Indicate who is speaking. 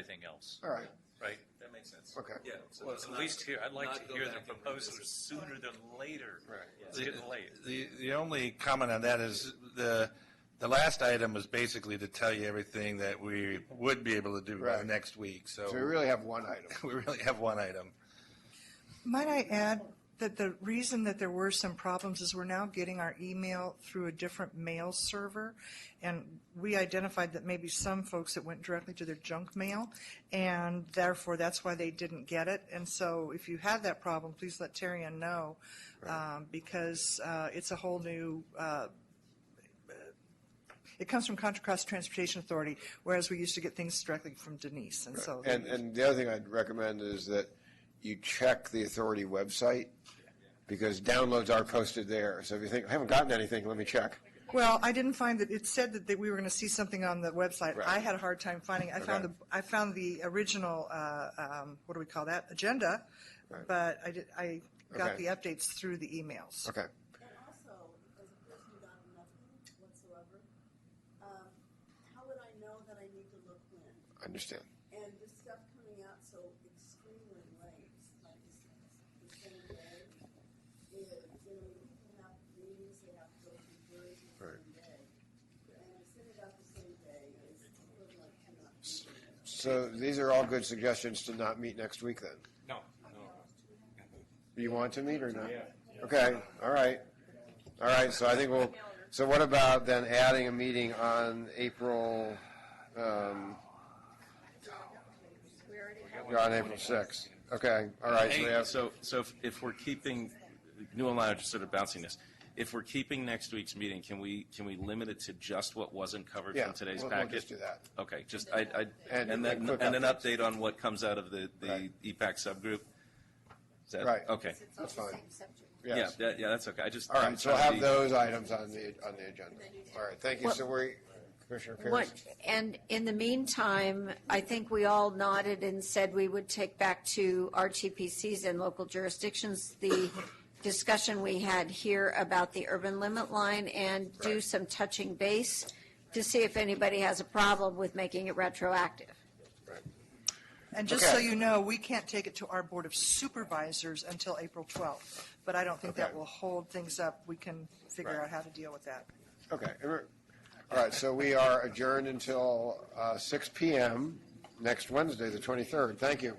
Speaker 1: everything else,
Speaker 2: All right,
Speaker 1: right?
Speaker 3: That makes sense.
Speaker 2: Okay.
Speaker 3: Yeah. so
Speaker 1: Well,
Speaker 3: let's
Speaker 1: at
Speaker 3: not-
Speaker 1: least here, I'd like
Speaker 3: not
Speaker 1: to
Speaker 3: go
Speaker 1: hear the
Speaker 3: back and
Speaker 1: proposals
Speaker 3: revisit.
Speaker 1: sooner than later.
Speaker 4: Right.
Speaker 1: It's
Speaker 4: The-
Speaker 1: getting late.
Speaker 4: The, the only comment on that is the, the last item was basically to tell you everything that we would be able to do by
Speaker 2: Right.
Speaker 4: next week,
Speaker 2: so we
Speaker 4: so
Speaker 2: really have one item.
Speaker 4: we really have one item.
Speaker 5: Might I add that the reason that there were some problems is we're now getting our email through a different mail server. And we identified that maybe some folks it went directly to their junk mail, and therefore that's why they didn't get it. And so if you have that problem, please let Terrian know, um, because uh, it's a whole new, uh, it comes from Contra Costa Transportation Authority, whereas we used to get things directly from Denise. And so.
Speaker 2: And, and the other thing I'd recommend is that you check the authority website, because downloads are posted there. So if you think, I haven't gotten anything, let me check.
Speaker 5: Well, I didn't find that, it said that, that we were going to see something on the website.
Speaker 2: Right.
Speaker 5: I had a hard time finding, it. I found the,
Speaker 2: Okay.
Speaker 5: I found the original, uh, um, what do we call that, agenda,
Speaker 2: Right.
Speaker 5: but I did, I got
Speaker 2: Okay.
Speaker 5: the updates through the emails.
Speaker 2: Okay,
Speaker 6: And also, as a person who got nothing whatsoever, um, how would I know that I need to look when?
Speaker 2: I understand.
Speaker 6: And this stuff coming out so extremely late, like this, the same day, is, you know, people have meetings, they have to go through hearings the same day. And to send it out the same day is equivalent to not being there.
Speaker 2: So these are all good suggestions to not meet next week then.
Speaker 3: No, no.
Speaker 2: Do you want to meet or not? Okay, all right. All right, so I think we'll, so what about then adding a meeting on April, um, on April sixth? Okay, all right, so we
Speaker 3: Hey,
Speaker 2: have,
Speaker 3: So, so if- if we're keeping, New and I are just sort of bouncing this. If we're keeping next week's meeting, can we, can we limit it to just what wasn't covered
Speaker 2: yeah,
Speaker 3: from today's
Speaker 2: we'll-
Speaker 3: packet?
Speaker 2: We'll just do that.
Speaker 3: Okay, just, I, I,
Speaker 2: And-
Speaker 3: and then,
Speaker 2: and quick
Speaker 3: and an
Speaker 2: updates.
Speaker 3: update on what comes out of the, E the
Speaker 2: Right.
Speaker 3: EPAC subgroup? Is that-
Speaker 2: Right.
Speaker 3: Okay,
Speaker 7: It's
Speaker 2: That's
Speaker 7: the
Speaker 2: fine.
Speaker 7: same subject.
Speaker 3: yeah,
Speaker 2: Yes.
Speaker 3: that- yeah, that's okay, I just.
Speaker 2: All
Speaker 3: I'm
Speaker 2: right, so we'll
Speaker 3: trying to
Speaker 2: have
Speaker 3: be-
Speaker 2: those items on the, on the agenda. All right, thank you. So we, Commissioner Pierce?
Speaker 7: What, and in the meantime, I think we all nodded and said we would take back to RTPCs and local jurisdictions the discussion we had here about the urban limit line and do
Speaker 2: Right.
Speaker 7: some touching base to see if anybody has a problem with making it retroactive.
Speaker 5: And just so
Speaker 2: Okay.
Speaker 5: you know, we can't take it to our Board of Supervisors until April 12th, but I don't think that
Speaker 2: Okay.
Speaker 5: will hold things up. We can figure
Speaker 2: Right.
Speaker 5: out how to deal with that.
Speaker 2: Okay. er- All right, so we are adjourned until uh, 6 PM next Wednesday, the 23rd. Thank you.